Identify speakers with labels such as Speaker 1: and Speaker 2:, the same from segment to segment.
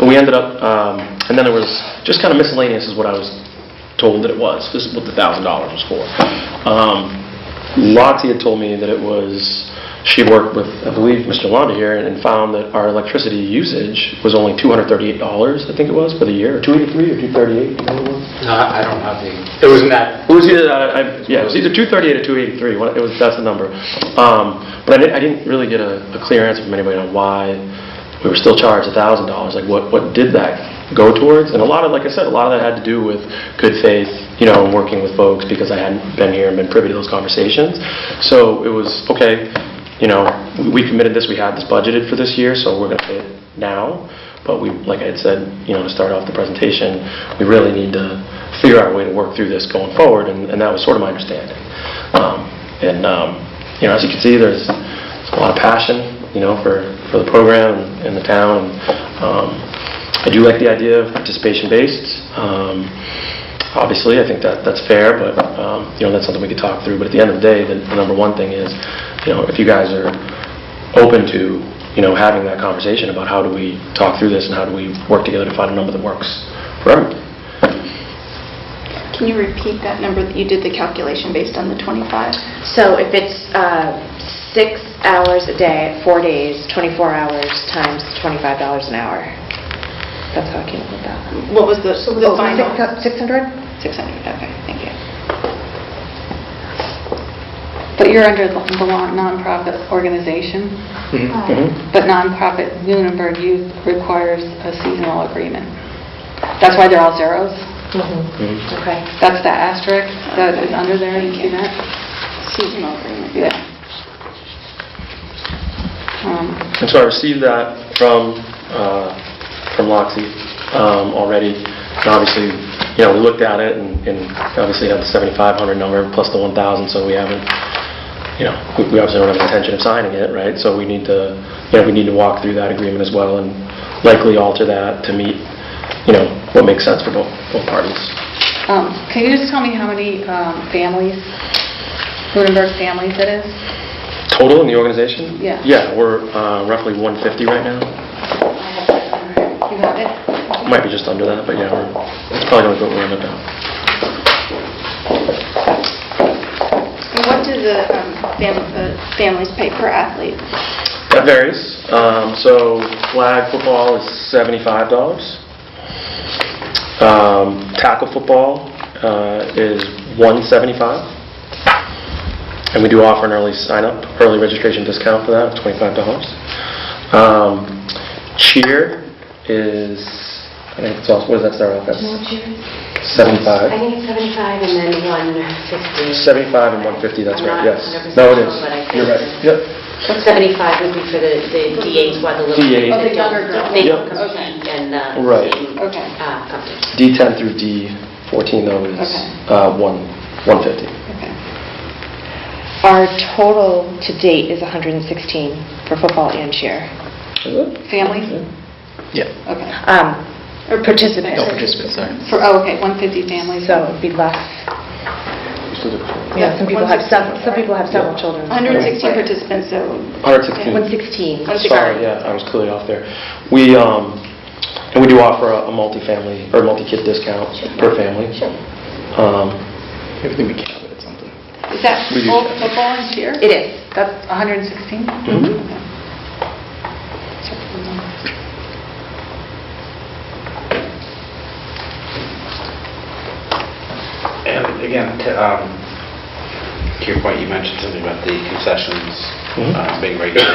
Speaker 1: But we ended up, um, and then there was, just kind of miscellaneous is what I was told that it was. This is what the $1,000 was for. Um, Lottie had told me that it was, she worked with, I believe, Mr. Londa here and found that our electricity usage was only $238, I think it was, for the year, or 283 or 238, you know what it was?
Speaker 2: No, I I don't have the, it wasn't that,
Speaker 1: It was either, uh, I- yeah, it was either 238 or 283, one- it was, that's the number. Um, But I didn't, I didn't really get a a clear answer from anybody on why we were still charged $1,000, like what, what did that go towards? And a lot of, like I said, a lot of that had to do with good faith, you know, and working with folks, because I hadn't been here and been privy to those conversations. So it was, okay, you know, we- we committed this, we had this budgeted for this year, so we're going to pay it now. But we, like I had said, you know, to start off the presentation, we really need to figure out a way to work through this going forward, and and that was sort of my understanding. Um, And, um, you know, as you can see, there's a lot of passion, you know, for for the program and the town. Um, I do like the idea of participation-based. Um, Obviously, I think that that's fair, but, um, you know, that's something we could talk through. But at the end of the day, the the number one thing is, you know, if you guys are open to, you know, having that conversation about how do we talk through this and how do we work together to find a number that works for everyone.
Speaker 3: Can you repeat that number that you did the calculation based on the 25?
Speaker 4: So if it's uh, six hours a day, four days, 24 hours times $25 an hour, that's how I came up with that.
Speaker 3: What was the the
Speaker 4: Oh,
Speaker 3: final?
Speaker 4: six- 600?
Speaker 3: 600, okay, thank you. But you're under the law nonprofit organization,
Speaker 1: Mhm.
Speaker 3: but nonprofit Lunenburg Youth requires a seasonal agreement. That's why they're all zeros.
Speaker 1: Mhm.
Speaker 4: Okay.
Speaker 3: That's the asterisk that is under there, you see that? Seasonal agreement. Yeah. Um,
Speaker 1: And so I received that from, uh, from Loxi um, already. And obviously, you know, we looked at it and and obviously had the 7,500 number plus the 1,000, so we haven't, you know, we we obviously don't have the intention of signing it, right? So we need to, you know, we need to walk through that agreement as well and likely alter that to meet, you know, what makes sense for both, both parties.
Speaker 3: Um, Can you just tell me how many um, families, Lunenburg families it is?
Speaker 1: Total in the organization?
Speaker 3: Yeah.
Speaker 1: Yeah, we're uh, roughly 150 right now.
Speaker 3: You got it?
Speaker 1: Might be just under that, but yeah, we're it's probably going to go around about.
Speaker 3: And what do the um, fam- uh, families pay per athlete?
Speaker 1: That varies. Um, So flag football is seventy-five dollars. Um, Tackle football uh, is one seventy-five. And we do offer an early sign-up, early registration discount for that of twenty-five dollars. Um, Cheer is, I think it's also, what does that start off at?
Speaker 4: I
Speaker 1: Seventy-five.
Speaker 4: think it's 75 and then 150.
Speaker 1: Seventy-five and one fifty, that's
Speaker 4: I'm
Speaker 1: right, yes.
Speaker 4: not 100%
Speaker 1: No, it is.
Speaker 4: sure, but I think
Speaker 1: You're right.
Speaker 4: it's-
Speaker 1: Yep.
Speaker 4: 75 would be for the the D8s, while the little...
Speaker 1: D8s. Oh,
Speaker 3: the younger girls.
Speaker 4: They don't
Speaker 1: Yep.
Speaker 4: compete and... uh,
Speaker 1: Right.
Speaker 4: in,
Speaker 3: Okay.
Speaker 4: uh, competition.
Speaker 1: D10 through D14 though is
Speaker 3: Okay.
Speaker 1: uh, one 150.
Speaker 4: Our total to date is 116 for football and cheer.
Speaker 1: Is it?
Speaker 3: Families?
Speaker 1: Yeah.
Speaker 3: Okay.
Speaker 4: Um,
Speaker 3: Or
Speaker 4: Participants.
Speaker 1: No participants, sorry.
Speaker 3: For, oh, okay, 150 families.
Speaker 4: So it'd be less.
Speaker 3: Yeah,
Speaker 4: Some people have, some some people have several
Speaker 1: Yeah.
Speaker 4: children.
Speaker 3: 116 participants, so
Speaker 1: 116.
Speaker 4: 116.
Speaker 3: One-
Speaker 1: Sorry, yeah, I was clearly off there. We, um, and we do offer a a multifamily, or multi-kid discount per family. Um,
Speaker 2: everything we can, but it's something.
Speaker 3: is that
Speaker 1: We do
Speaker 3: both
Speaker 1: that.
Speaker 3: football and cheer?
Speaker 4: It is.
Speaker 3: That's 116?
Speaker 1: Mhm.
Speaker 2: And again, to um, to your point, you mentioned something about the concessions
Speaker 1: Mhm.
Speaker 2: uh, being regulated.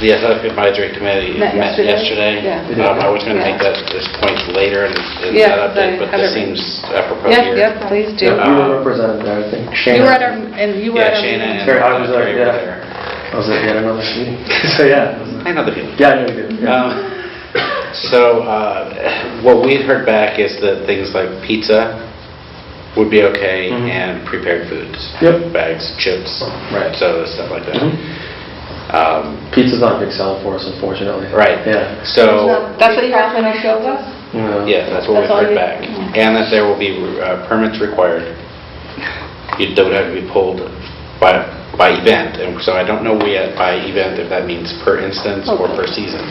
Speaker 2: The athletic advisory committee
Speaker 3: Met
Speaker 2: met
Speaker 3: yesterday?
Speaker 2: yesterday.
Speaker 1: Yeah.
Speaker 2: Um, I was going to make
Speaker 3: Yeah.
Speaker 2: that, this point later in in
Speaker 3: Yeah,
Speaker 2: that update,
Speaker 3: I
Speaker 2: but this
Speaker 3: have it.
Speaker 2: seems apropos
Speaker 3: Yeah,
Speaker 2: here.
Speaker 3: yeah, please do.
Speaker 1: You
Speaker 2: Uh,
Speaker 1: were represented there, I think.
Speaker 3: You were at our, and you were
Speaker 2: Yeah,
Speaker 3: at our...
Speaker 2: Shana and
Speaker 1: Terry Hodges
Speaker 2: uh,
Speaker 1: are-
Speaker 2: Terry were
Speaker 1: yeah.
Speaker 2: there.
Speaker 1: I was at yet another meeting. So, yeah. it was-
Speaker 2: I know the feeling.
Speaker 1: Yeah, I know you did. yeah.
Speaker 2: Um, So, uh, what we'd heard back is that things like pizza would be okay,
Speaker 1: Mhm.
Speaker 2: and prepared foods.
Speaker 1: Yep.
Speaker 2: Bags, chips,
Speaker 1: Right.
Speaker 2: soda, stuff like that.
Speaker 1: Mhm.
Speaker 2: Um,
Speaker 1: Pizza's not a big seller for us, unfortunately.
Speaker 2: Right.
Speaker 1: Yeah.
Speaker 2: So,
Speaker 3: That's what you have when I show up?
Speaker 1: No.
Speaker 2: yeah, that's what we've
Speaker 3: That's all
Speaker 2: heard
Speaker 3: you- Mm.
Speaker 2: back. And that there will be uh, permits required. You- That would have to be pulled by, by event, and so I don't know yet by event if that means per instance or per season.